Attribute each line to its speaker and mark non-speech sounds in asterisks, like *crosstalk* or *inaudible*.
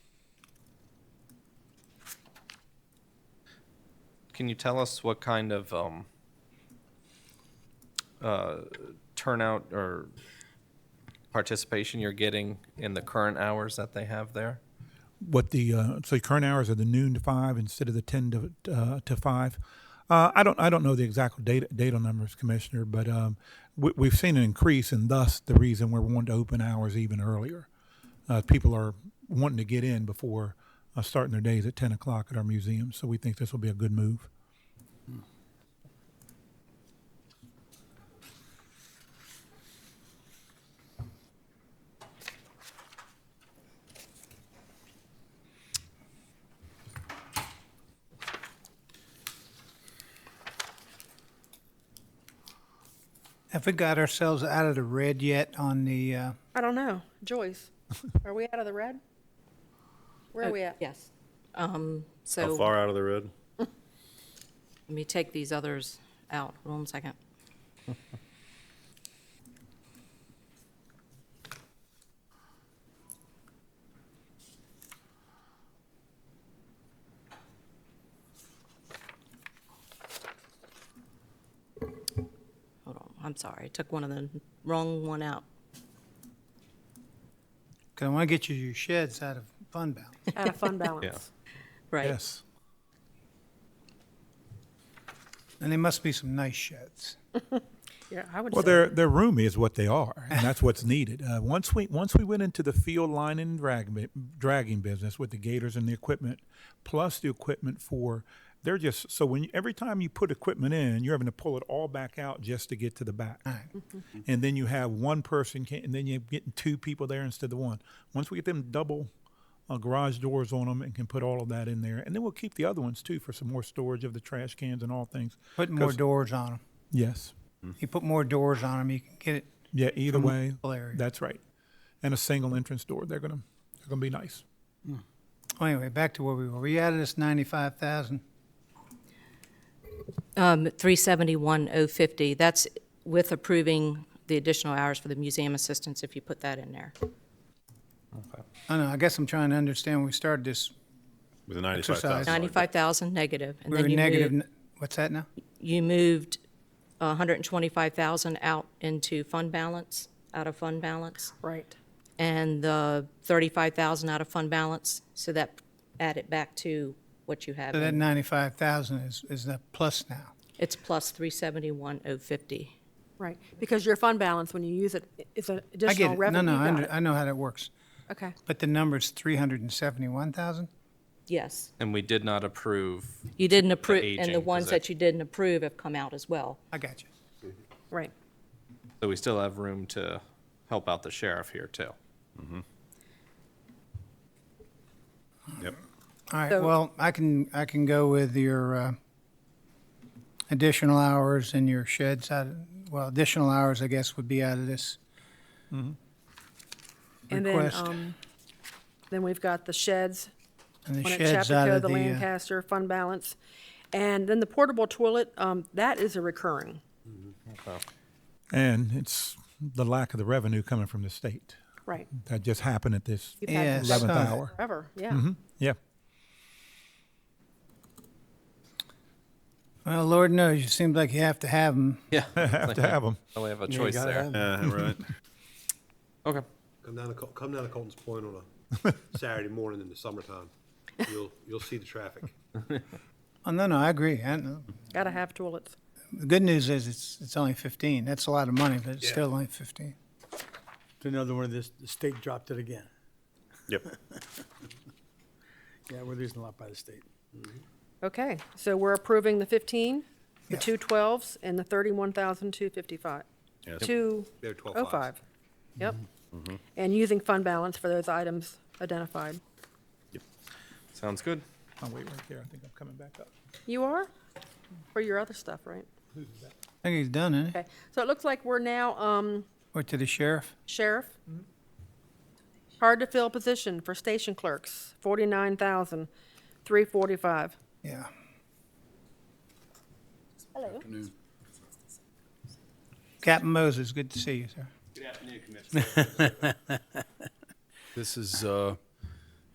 Speaker 1: can you tell us what kind of um, uh, turnout or participation you're getting in the current hours that they have there?
Speaker 2: what the uh, so the current hours are the noon to five instead of the ten to uh, to five. Uh, I don't I don't know the exact data data numbers, Commissioner, but um, we, we've seen an increase, and thus the reason we're wanting to open hours even earlier. Uh, people are wanting to get in before uh, starting their days at ten o'clock at our museum, so we think this will be a good move.
Speaker 3: Have we got ourselves out of the red yet on the, uh,
Speaker 4: I don't know.
Speaker 3: *laughs*
Speaker 4: Joyce, are we out of the red? Where are we at?
Speaker 5: Yes. Um,
Speaker 6: How
Speaker 5: So let
Speaker 6: far out of the red?
Speaker 5: me take these others out. Hold on a second. Hold on. I'm sorry. I took one of the wrong one out.
Speaker 3: because I want to get you your sheds out of fund balance.
Speaker 4: Out of fund balance.
Speaker 5: Right.
Speaker 2: Yes,
Speaker 3: And they must be some nice sheds.
Speaker 4: Yeah, I would
Speaker 2: well,
Speaker 4: say,
Speaker 2: they're they're roomy is what they are, and that's what's needed. Uh, once we once we went into the field lining and drag, bu- dragging business with the gators and the equipment, plus the equipment for they're just so when you, every time you put equipment in, you're having to pull it all back out just to get to the back, and then you have one person, can, and then you're getting two people there instead of one. Once we get them double. Uh, garage doors on them and can put all of that in there and then we'll keep the other ones too for some more storage of the trash cans and all things
Speaker 3: Put more
Speaker 2: 'Cause-
Speaker 3: doors on
Speaker 2: yes
Speaker 3: them. You put more doors on them, you can get it.
Speaker 2: yeah, either
Speaker 3: From
Speaker 2: way,
Speaker 3: all areas.
Speaker 2: that's right. And a single entrance door. They're gonna they're gonna be nice.
Speaker 3: Well, Anyway, back to where we were. We added this ninety-five thousand.
Speaker 5: Um, 371,050, that's with approving the additional hours for the museum assistants, if you put that in there.
Speaker 3: I know, I guess I'm trying to understand, when we started this,
Speaker 6: With a ninety-five
Speaker 3: Exercise.
Speaker 6: thousand.
Speaker 5: 95,000 negative, and
Speaker 3: we were
Speaker 5: then you
Speaker 3: negative,
Speaker 5: moved,
Speaker 3: n- what's that now?
Speaker 5: you moved 125,000 out into fund balance, out of fund balance,
Speaker 4: right.
Speaker 5: and the 35,000 out of fund balance, so that add it back to what you have.
Speaker 3: So that
Speaker 5: in.
Speaker 3: ninety-five thousand is, is the plus now.
Speaker 5: It's plus 371,050.
Speaker 4: Right, because your fund balance, when you use it, it's an
Speaker 3: I
Speaker 4: additional
Speaker 3: get it. No,
Speaker 4: revenue.
Speaker 3: no,
Speaker 4: You
Speaker 3: I,
Speaker 4: got
Speaker 3: under-
Speaker 4: it.
Speaker 3: I know how that works.
Speaker 4: Okay,
Speaker 3: But the number's three hundred and seventy-one thousand?
Speaker 5: Yes.
Speaker 1: And we did not approve,
Speaker 5: You didn't approve, and the
Speaker 1: aging, 'cause
Speaker 5: ones
Speaker 1: that-
Speaker 5: that you didn't approve have come out as well.
Speaker 3: I got you.
Speaker 4: right.
Speaker 1: so we still have room to help out the sheriff here too.
Speaker 6: Yep.
Speaker 3: All right,
Speaker 4: So-
Speaker 3: well, I can, I can go with your uh, additional hours and your sheds out, of- well, additional hours, I guess, would be out of this.
Speaker 7: Mm-hmm.
Speaker 4: And then,
Speaker 3: Request.
Speaker 4: um, then we've got the sheds,
Speaker 3: And the
Speaker 4: one at
Speaker 3: sheds out
Speaker 4: Chapico,
Speaker 3: of
Speaker 4: the
Speaker 3: the, uh,
Speaker 4: Lancaster, fund balance. And then the portable toilet, um, that is a recurring,
Speaker 2: And it's the lack of the revenue coming from the state.
Speaker 4: right.
Speaker 2: That just happened at this
Speaker 4: You've had
Speaker 3: Yes.
Speaker 4: this
Speaker 2: eleventh
Speaker 3: Right.
Speaker 2: hour.
Speaker 4: Forever, yeah.
Speaker 3: Mm-hmm.
Speaker 2: Yeah.
Speaker 3: well, Lord knows, you seem like you have to have them.
Speaker 1: Yeah.
Speaker 2: Have to have them.
Speaker 1: Oh, We have a choice there.
Speaker 6: Yeah, Uh, right.
Speaker 1: Okay.
Speaker 8: *laughs* Come down to, Col- come down to Colton's Point on
Speaker 6: *laughs*
Speaker 8: a Saturday morning in the summertime. You'll, you'll see the traffic.
Speaker 3: Oh, no, no, I agree. I know.
Speaker 4: Gotta have toilets.
Speaker 3: The good news is it's, it's only fifteen. That's a lot of money, but it's
Speaker 8: Yeah.
Speaker 3: still only fifteen.
Speaker 7: It's another one of this, the state dropped it again.
Speaker 6: Yep.
Speaker 7: Yeah, we're losing a lot by the state.
Speaker 4: Okay, so we're approving the 15, the
Speaker 3: Yes.
Speaker 4: two 12s, and the 31,255.
Speaker 6: Yes. Yep.
Speaker 8: They're 12
Speaker 4: Oh,
Speaker 8: fives.
Speaker 4: five. Yep. And using fund balance for those items identified.
Speaker 1: Sounds good.
Speaker 2: Oh wait, right there. I think I'm coming back up.
Speaker 4: You are? For your other stuff, right?
Speaker 3: I think he's done, isn't he?
Speaker 4: Okay, so it looks like we're now, um,
Speaker 3: Or to the sheriff?
Speaker 4: sheriff. Hard-to-fill position for station clerks, 49,345.
Speaker 3: Yeah.
Speaker 4: Hello.
Speaker 3: Captain Moses, good to see you, sir.
Speaker 9: This is uh,